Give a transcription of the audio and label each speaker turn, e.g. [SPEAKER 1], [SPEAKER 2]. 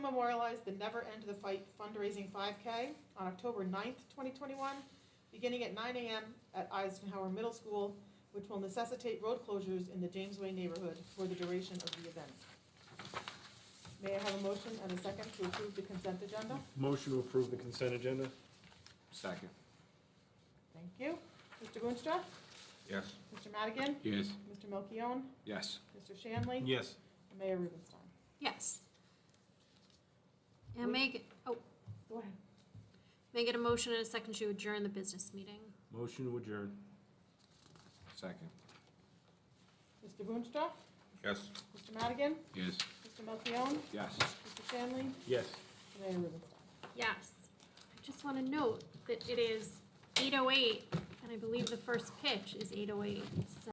[SPEAKER 1] memorialize the Never End the Fight fundraising 5K on October 9th, 2021, beginning at 9 a.m. at Eisenhower Middle School, which will necessitate road closures in the Jamesway neighborhood for the duration of the event. May I have a motion and a second to approve the consent agenda?
[SPEAKER 2] Motion to approve the consent agenda?
[SPEAKER 3] Second.
[SPEAKER 1] Thank you. Mr. Boonstra?
[SPEAKER 3] Yes.
[SPEAKER 1] Mr. Madigan?
[SPEAKER 2] Yes.
[SPEAKER 1] Mr. Melchiong?
[SPEAKER 3] Yes.
[SPEAKER 1] Mr. Shanley?
[SPEAKER 2] Yes.
[SPEAKER 1] and Mayor Rubenstein?
[SPEAKER 4] Yes.
[SPEAKER 1] Wait.
[SPEAKER 4] And make, it- oh,
[SPEAKER 1] Go ahead.
[SPEAKER 4] make it a motion and a second to adjourn the business meeting.
[SPEAKER 2] Motion to adjourn?
[SPEAKER 3] Second.
[SPEAKER 1] Mr. Boonstra?
[SPEAKER 3] Yes.
[SPEAKER 1] Mr. Madigan?
[SPEAKER 2] Yes.
[SPEAKER 1] Mr. Melchiong?
[SPEAKER 3] Yes.
[SPEAKER 1] Mr. Shanley?
[SPEAKER 2] Yes.
[SPEAKER 1] and Mayor Rubenstein?
[SPEAKER 4] Yes. I just want to oh note that it is 8:08, and I believe the first pitch is 8:08, so.